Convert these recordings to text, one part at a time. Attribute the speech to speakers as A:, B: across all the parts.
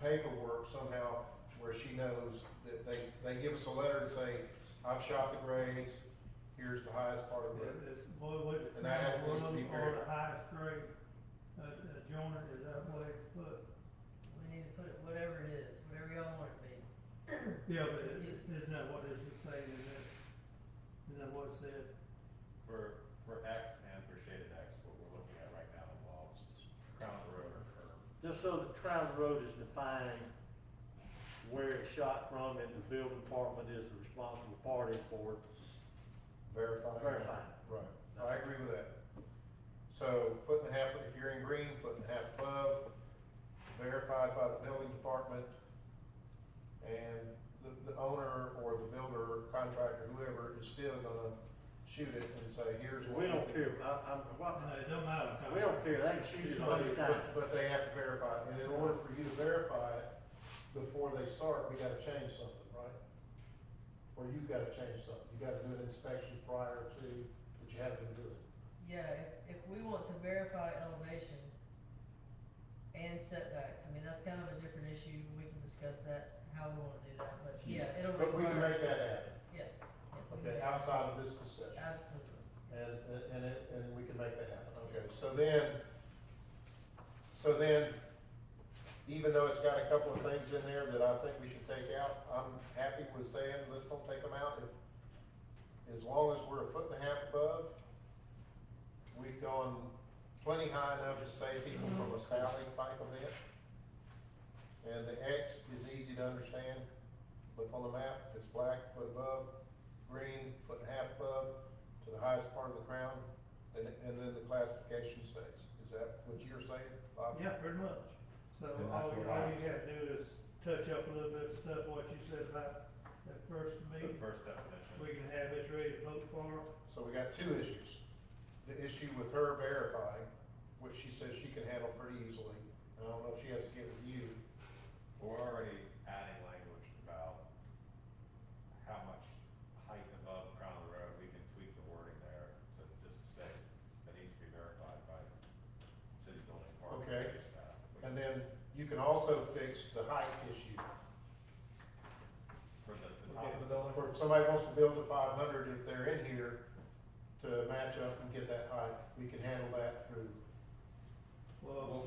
A: paperwork somehow where she knows that they, they give us a letter and say, I've shot the grades, here's the highest part of it.
B: It- It's, boy, would it,
A: And
B: one
A: that happens to be
B: or
A: very-
B: the highest grade, uh, uh, joiner is that way, but,
C: We need to put it, whatever it is, whatever y'all want it to be.
B: yeah, but it- it- isn't that what it's saying, is that, isn't that what it said?
D: For, for X and for shaded X, what we're looking at right now involves crown of the road or curb.
E: Just so the Crown Road is defined where it's shot from and the building department is the responsible party for
A: Verifying.
E: Verifying.
A: Right, I agree with that. So foot and a half, if you're in green, foot and a half above, verified by the building department. And the, the owner or the builder, contractor, whoever is still gonna shoot it and say, here's
E: it.
A: what.
E: We don't
A: did."
E: care, I, I'm, what,
B: No, it don't matter.
E: we don't care, they can shoot it a hundred times.
A: But, but they have to verify, it. and in order for you to verify it before they start, we gotta change something, right? Or you gotta change something, you gotta do an inspection prior to, that you haven't been doing.
C: Yeah, if, if we want to verify elevation and setbacks, I mean, that's kind of a different issue, we can discuss that, how we wanna do that, but yeah, it'll
A: But we can
C: require.
A: make that happen,
C: Yeah. yeah, we can
A: okay,
C: make-
A: outside of this discussion,
C: Absolutely.
A: and, and- and, it- and we can make that happen, okay, so then, so then, even though it's got a couple of things in there that I think we should take out, I'm happy with saying, let's don't take them out, if, as long as we're a foot and a half above, we've gone plenty high enough to save people from a salvage type event. And the X is easy to understand, look on the map, if it's black, foot above, green, foot and a half above, to the highest part of the crown, and, and then the classification stays. Is that what you're saying, Bob?
B: Yeah, pretty much. So
D: And that's
B: all, all
D: what
B: you
D: I
B: have
D: was-
B: to do is touch up a little bit of stuff, what you said about that first
D: The
B: meeting.
D: first definition,
B: We can have this ready to vote for.
A: So we got two issues. The issue with her verifying, which she says she can handle pretty easily, and I don't know if she has to get with you.
D: we're already adding language about how much height above crown of the road, we can tweak the wording there to just say that needs to be verified by city building department.
A: Okay.
D: city staff. We
A: And
D: can-
A: then you can also fix the height issue.
D: For the, the top of the building,
A: Or if somebody wants to build to five hundred, if they're in here to match up and get that height, we can handle that through.
D: we'll,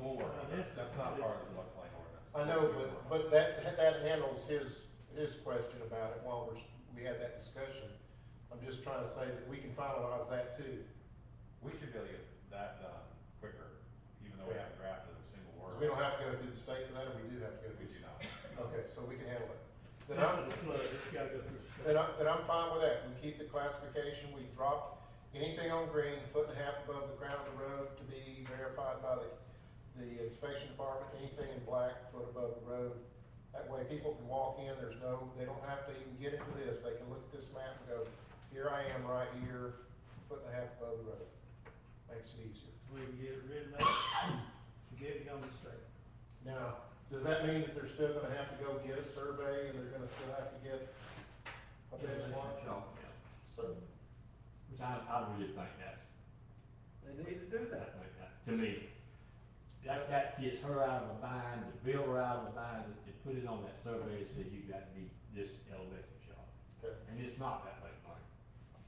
B: Well,
D: we'll work,
B: now
D: on
B: this
D: that.
B: is-
D: that's not
B: this-
D: part of the floodplain ordinance.
A: I know, but, but that, that handles his, his question about it while we're, we had that discussion. I'm just trying to say that we can finalize that too.
D: We should be able to get that done quicker, even though we haven't drafted a single word.
A: We don't have to go through the state for that, or we do have to go
D: We
A: through the
D: do
A: state.
D: not.
A: Okay, so we can handle it. Then I'm,
B: This is a flood, it's gotta go through.
A: then I'm, then I'm fine with that. We keep the classification, we drop anything on green, foot and a half above the ground of the road to be verified by the, the inspection department, anything in black, foot above the road. That way people can walk in, there's no, they don't have to even get into this. They can look at this map and go, here I am right here, foot and a half above the road. Makes it easier.
B: We can get it written out, get it on the state.
A: Now, does that mean that they're still gonna have to go get a survey and they're gonna still have to get a benchmark? So,
F: Which I, I really think that's,
E: They need to do
F: I
E: that.
F: think that, to me, that, that gets her out of the bind, the builder out of the bind, and- and put it on that survey that says you got to be this elevation shot.
A: Okay.
F: And it's not that much money.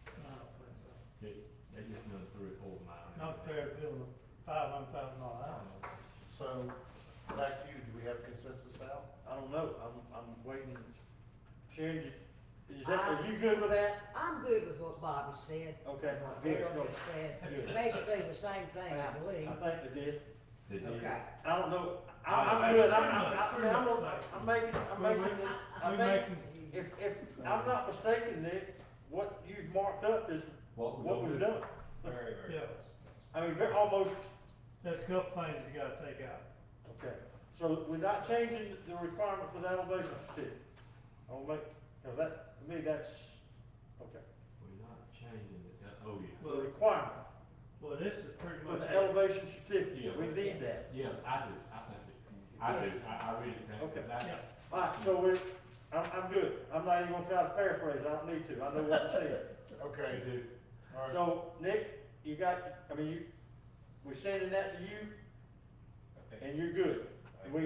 B: I don't think so.
F: They, they just done three or four of mine.
B: Not fair to build a five hundred thousand dollar house.
A: so, back to you, do we have consensus now?
E: I don't know, I'm, I'm waiting. Sharon, you- is that, are you good with that?
G: I'm good with what Bobby said.
E: Okay,
G: and What
E: good,
G: Bill
E: good.
G: just said,
E: Good.
G: basically the same thing, I believe.
E: I think they did.
F: They did.
G: Okay,
E: I don't know, I, I'm good, I'm, I'm, I'm, I'm, I'm making, I'm making,
B: We
E: I think,
B: making,
E: if, if, I'm not mistaken, Nick, what you've marked up is
F: What we
E: what
F: gonna
E: we've
F: do?
E: done.
D: Very, very
B: Yeah.
D: close.
E: I mean, they're almost,
B: there's a couple things you gotta take out.
E: okay, so we're not changing the requirement for the elevation certificate. I'll make, now that, to me, that's, okay,
F: We're not changing it, that- oh, yeah.
E: the requirement
B: Well, this is pretty
E: for
B: much.
E: the
B: it.
E: elevation
F: Yeah.
E: certificate, we need that.
F: Yeah, I do, I think it, I do, I, I really think
E: Okay.
F: that that.
B: Yeah.
E: All right, so we're, I'm, I'm good, I'm not even gonna try to paraphrase, I don't need to, I know what I'm saying.
A: Okay,
F: we do.
A: all right,
E: So, Nick, you got, I mean, you, we're sending that to you,
D: I think
E: and you're good.